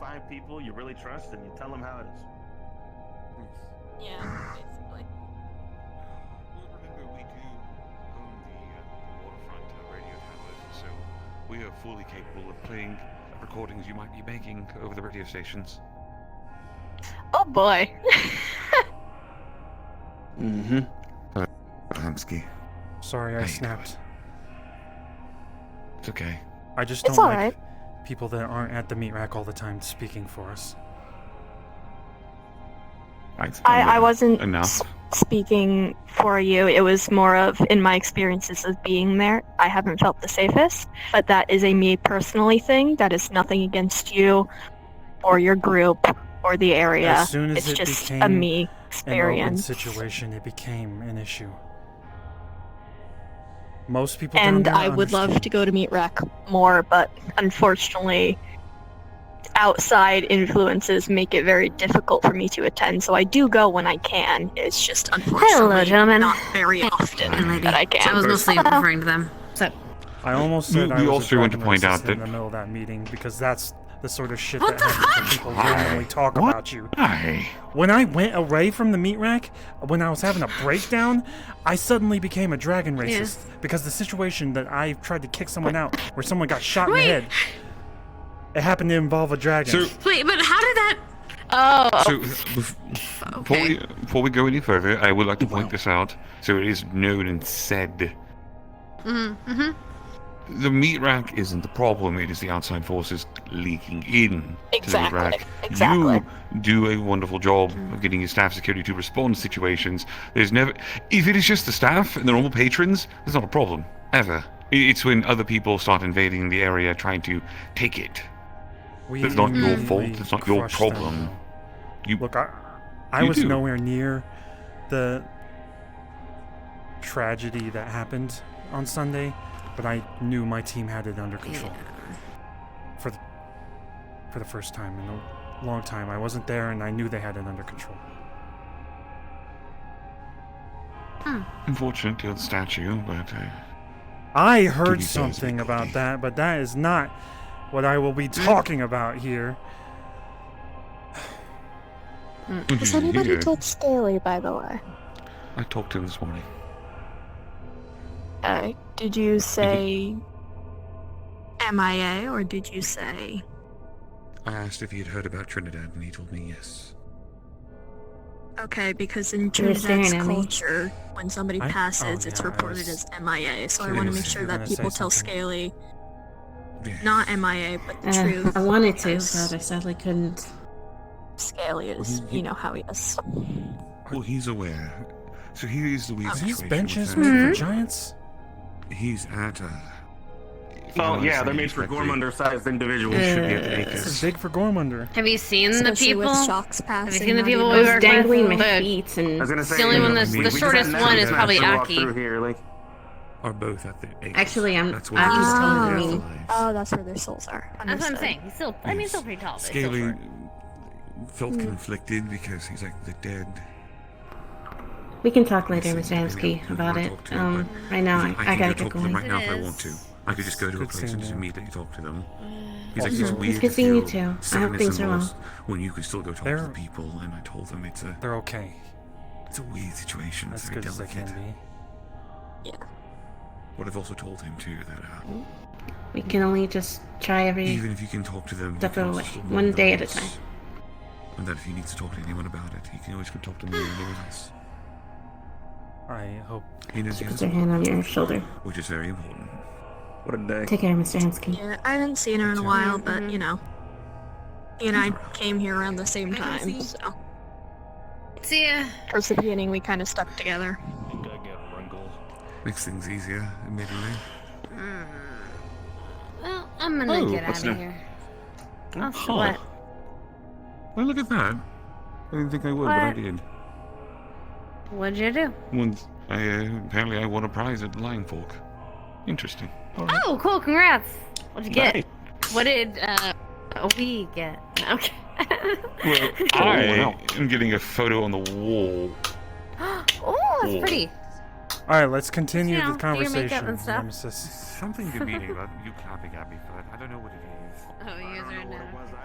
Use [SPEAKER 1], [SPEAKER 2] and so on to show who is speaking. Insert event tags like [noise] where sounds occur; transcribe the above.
[SPEAKER 1] five people you really trust and you tell them how it is.
[SPEAKER 2] Yeah, basically.
[SPEAKER 3] Well, remember, we do own the, uh, the waterfront uh, radio towers, so we are fully capable of playing recordings you might be making over the radio stations.
[SPEAKER 2] Oh boy.
[SPEAKER 4] Mm-hmm.
[SPEAKER 5] Hamsky.
[SPEAKER 6] Sorry,
[SPEAKER 3] Oh,
[SPEAKER 5] How
[SPEAKER 6] I
[SPEAKER 5] you
[SPEAKER 6] snapped.
[SPEAKER 5] It's okay.
[SPEAKER 6] I just don't
[SPEAKER 2] It's
[SPEAKER 6] like
[SPEAKER 2] alright.
[SPEAKER 6] people that aren't at the meat rack all the time speaking for us.
[SPEAKER 2] I, I wasn't
[SPEAKER 3] Enough.
[SPEAKER 2] s- speaking for you. It was more of in my experiences of being there. I haven't felt the safest, but that is a me personally thing. That is nothing against you, or your group, or the area.
[SPEAKER 6] As soon as
[SPEAKER 2] It's
[SPEAKER 6] it
[SPEAKER 2] just
[SPEAKER 6] became
[SPEAKER 2] a me
[SPEAKER 6] an open
[SPEAKER 2] experience.
[SPEAKER 6] situation, it became an issue. Most people down
[SPEAKER 2] and
[SPEAKER 6] there
[SPEAKER 2] I would love
[SPEAKER 6] understand.
[SPEAKER 2] to go to Meat Rack more, but unfortunately, outside influences make it very difficult for me to attend. So I do go when I can. It's just unfortunately
[SPEAKER 7] gentlemen.
[SPEAKER 2] not very often
[SPEAKER 7] Hi, lady.
[SPEAKER 2] that I
[SPEAKER 7] I was
[SPEAKER 2] can.
[SPEAKER 7] mostly referring to them. So,
[SPEAKER 6] I almost
[SPEAKER 3] We-
[SPEAKER 6] said I
[SPEAKER 3] we
[SPEAKER 6] was
[SPEAKER 3] also
[SPEAKER 6] a
[SPEAKER 3] want to
[SPEAKER 6] drug
[SPEAKER 3] point out
[SPEAKER 6] narcissist in
[SPEAKER 3] that-
[SPEAKER 6] the middle of that meeting because that's the sort of shit
[SPEAKER 7] What
[SPEAKER 6] that
[SPEAKER 7] the
[SPEAKER 6] happens when people
[SPEAKER 5] Why?
[SPEAKER 6] randomly talk
[SPEAKER 5] What?
[SPEAKER 6] about you.
[SPEAKER 5] Hi.
[SPEAKER 6] When I went away from the meat rack, when I was having a breakdown, I suddenly became a dragon racist
[SPEAKER 7] Yes.
[SPEAKER 6] because the situation that I tried to kick someone out, where someone got shot in
[SPEAKER 7] Wait.
[SPEAKER 6] the head, it happened to involve a dragon.
[SPEAKER 3] So,
[SPEAKER 7] wait, but how did that?
[SPEAKER 2] Oh,
[SPEAKER 3] so bef- before,
[SPEAKER 7] Okay.
[SPEAKER 3] we, before we go any further, I would like to point this out so it is known and said.
[SPEAKER 7] Mm-hmm.
[SPEAKER 3] The meat rack isn't the problem, it is the outside forces leaking in
[SPEAKER 2] Exactly,
[SPEAKER 3] to the meat rack.
[SPEAKER 2] exactly.
[SPEAKER 3] You do a wonderful job of getting your staff security to respond to situations. There's never if it is just the staff and the normal patrons, there's not a problem. Ever. I- It's when other people start invading the area trying to take it.
[SPEAKER 6] We
[SPEAKER 3] That's not
[SPEAKER 7] your
[SPEAKER 6] immediately
[SPEAKER 3] fault, it's not your
[SPEAKER 6] crushed them,
[SPEAKER 3] problem.
[SPEAKER 6] though.
[SPEAKER 3] You-
[SPEAKER 6] Look, I, I
[SPEAKER 3] you
[SPEAKER 6] was
[SPEAKER 3] do.
[SPEAKER 6] nowhere near the tragedy that happened on Sunday, but I knew my team had it under control. for the, for the first time in a long time. I wasn't there, and I knew they had it under control.
[SPEAKER 3] Unfortunately, on the statue, but uh,
[SPEAKER 6] I
[SPEAKER 3] Give
[SPEAKER 6] heard
[SPEAKER 3] you guys
[SPEAKER 6] something
[SPEAKER 3] my
[SPEAKER 6] about
[SPEAKER 3] cookie.
[SPEAKER 6] that, but that is not what I will be
[SPEAKER 3] Mm.
[SPEAKER 6] talking about here.
[SPEAKER 2] has
[SPEAKER 3] Mhm,
[SPEAKER 2] anybody
[SPEAKER 3] yeah.
[SPEAKER 2] told Staley, by the way?
[SPEAKER 3] I talked to him this morning.
[SPEAKER 2] Uh, did you say MIA or did you say?
[SPEAKER 3] I asked if he had heard about Trinidad, and he told me yes.
[SPEAKER 2] Okay, because in
[SPEAKER 7] You're staring
[SPEAKER 2] Trinidad's
[SPEAKER 7] at me.
[SPEAKER 2] culture, when somebody
[SPEAKER 6] I- oh,
[SPEAKER 2] passes, it's
[SPEAKER 6] yeah, I
[SPEAKER 2] reported
[SPEAKER 6] was
[SPEAKER 2] as MIA. So I want to
[SPEAKER 6] curious
[SPEAKER 2] make
[SPEAKER 6] if
[SPEAKER 2] sure
[SPEAKER 6] you were
[SPEAKER 2] that
[SPEAKER 6] gonna
[SPEAKER 2] people
[SPEAKER 6] say
[SPEAKER 2] tell
[SPEAKER 6] something.
[SPEAKER 2] Scaly
[SPEAKER 3] Yes.
[SPEAKER 2] not MIA, but the
[SPEAKER 8] Eh,
[SPEAKER 7] Uh,
[SPEAKER 2] truth.
[SPEAKER 7] I wanted to,
[SPEAKER 2] because
[SPEAKER 7] but I sadly couldn't.
[SPEAKER 2] Scaly is,
[SPEAKER 3] Mhm.
[SPEAKER 2] you know how he is.
[SPEAKER 3] Well, he's aware. So here is the weird
[SPEAKER 2] Are
[SPEAKER 6] Are
[SPEAKER 3] situation.
[SPEAKER 6] these benches
[SPEAKER 3] with
[SPEAKER 6] made
[SPEAKER 3] him.
[SPEAKER 6] for giants?
[SPEAKER 2] hmm?
[SPEAKER 3] He's at uh, a.
[SPEAKER 1] Well, yeah, they're made for gorm undersized individuals.
[SPEAKER 3] We should be at the acres.
[SPEAKER 6] This is big for Gormunder.
[SPEAKER 7] Have you seen the
[SPEAKER 2] Especially
[SPEAKER 7] people?
[SPEAKER 2] with
[SPEAKER 7] Have
[SPEAKER 2] shocks passing.
[SPEAKER 7] you seen the
[SPEAKER 2] not
[SPEAKER 7] people
[SPEAKER 2] even-
[SPEAKER 7] we
[SPEAKER 8] I
[SPEAKER 7] work
[SPEAKER 8] was dangling
[SPEAKER 7] with?
[SPEAKER 8] my
[SPEAKER 7] The-
[SPEAKER 8] feet,
[SPEAKER 1] I
[SPEAKER 8] and
[SPEAKER 1] was gonna say,
[SPEAKER 7] the only
[SPEAKER 1] you
[SPEAKER 7] one
[SPEAKER 1] know,
[SPEAKER 7] that's
[SPEAKER 1] we-
[SPEAKER 7] the
[SPEAKER 1] we just
[SPEAKER 7] shortest
[SPEAKER 1] had
[SPEAKER 7] one
[SPEAKER 1] to
[SPEAKER 7] is
[SPEAKER 1] walk
[SPEAKER 7] probably
[SPEAKER 1] through
[SPEAKER 7] Aki.
[SPEAKER 1] here, like-
[SPEAKER 3] Are both at the acres.
[SPEAKER 8] actually, I'm.
[SPEAKER 3] That's what
[SPEAKER 8] I
[SPEAKER 3] he's
[SPEAKER 8] was
[SPEAKER 2] Ah.
[SPEAKER 8] telling
[SPEAKER 3] telling
[SPEAKER 8] me.
[SPEAKER 3] me.
[SPEAKER 2] Oh, that's where their souls are.
[SPEAKER 8] That's what I'm
[SPEAKER 2] Understood.
[SPEAKER 8] saying. He's still. I mean, he's still
[SPEAKER 3] Yes.
[SPEAKER 8] pretty tall. But he's still
[SPEAKER 3] Scaly
[SPEAKER 8] short.
[SPEAKER 3] felt
[SPEAKER 8] Hmm.
[SPEAKER 3] conflicted because he's like the dead.
[SPEAKER 8] We can talk
[SPEAKER 3] later, Mr. Hamsky, about it. Um,
[SPEAKER 8] right
[SPEAKER 3] He's like, I, can go talk to them right now if I
[SPEAKER 8] It
[SPEAKER 3] want to.
[SPEAKER 8] is-
[SPEAKER 3] I could just go to a
[SPEAKER 6] Good
[SPEAKER 3] place and
[SPEAKER 6] seeing
[SPEAKER 3] just
[SPEAKER 6] you.
[SPEAKER 3] immediately talk to them. He's like, it's
[SPEAKER 6] Also- It's
[SPEAKER 3] weird
[SPEAKER 8] good
[SPEAKER 3] to
[SPEAKER 8] seeing you
[SPEAKER 3] feel
[SPEAKER 8] too. I hope
[SPEAKER 3] sadness
[SPEAKER 8] things
[SPEAKER 3] and
[SPEAKER 8] are well.
[SPEAKER 3] loss When you can still go talk to
[SPEAKER 6] They're-
[SPEAKER 3] the people, and I told them it's a
[SPEAKER 6] They're okay.
[SPEAKER 3] it's a weird situation. It's
[SPEAKER 6] As
[SPEAKER 3] very
[SPEAKER 6] good as they
[SPEAKER 3] delicate.
[SPEAKER 6] can be.
[SPEAKER 3] But I've also told him too that uh,
[SPEAKER 8] We can only just try every.
[SPEAKER 3] Even if you can talk to them, you
[SPEAKER 8] Step
[SPEAKER 3] can also
[SPEAKER 8] away,
[SPEAKER 3] still
[SPEAKER 8] one
[SPEAKER 3] learn
[SPEAKER 8] day
[SPEAKER 3] the
[SPEAKER 8] at a
[SPEAKER 3] rules. And that if he needs to talk to anyone about it, he can always go talk to me or anyone else.
[SPEAKER 6] I hope.
[SPEAKER 3] He knows
[SPEAKER 8] She
[SPEAKER 3] the
[SPEAKER 8] puts
[SPEAKER 3] answer,
[SPEAKER 8] her hand on your shoulder.
[SPEAKER 3] which is very important.
[SPEAKER 1] What a day.
[SPEAKER 8] Take care, Mr. Hansky.
[SPEAKER 2] Yeah, I haven't seen her in a while, but
[SPEAKER 7] Mm-hmm.
[SPEAKER 2] you know, he and I came here around the same time, so
[SPEAKER 7] See ya.
[SPEAKER 2] perseveering, we kind of stuck together.
[SPEAKER 3] Makes things easier, admittedly.
[SPEAKER 7] Well, I'm gonna
[SPEAKER 3] Oh,
[SPEAKER 7] get out
[SPEAKER 3] what's
[SPEAKER 7] of
[SPEAKER 3] that?
[SPEAKER 7] here. I'll
[SPEAKER 3] Oh.
[SPEAKER 7] sweat.
[SPEAKER 3] Well, look at that. I didn't think I would, but I
[SPEAKER 7] What?
[SPEAKER 3] did.
[SPEAKER 7] What'd you do?
[SPEAKER 3] Once, I, uh, apparently I won a prize at Lion Fork. Interesting.
[SPEAKER 7] [laughs]
[SPEAKER 3] All right.
[SPEAKER 7] Oh, cool! Congrats. What'd you get?
[SPEAKER 1] Nice.
[SPEAKER 7] What did uh we get? [laughs] Okay.
[SPEAKER 3] Well, I am getting a photo on the wall.
[SPEAKER 7] [gasps] oh, that's
[SPEAKER 3] Cool.
[SPEAKER 7] pretty.
[SPEAKER 6] All right, let's continue
[SPEAKER 7] You know,
[SPEAKER 6] the
[SPEAKER 7] do your makeup
[SPEAKER 6] conversation,
[SPEAKER 7] and stuff.
[SPEAKER 6] Nemesis.
[SPEAKER 3] Something demeaning about you clapping at me, but I don't know what it is.
[SPEAKER 7] Oh, you guys are in a-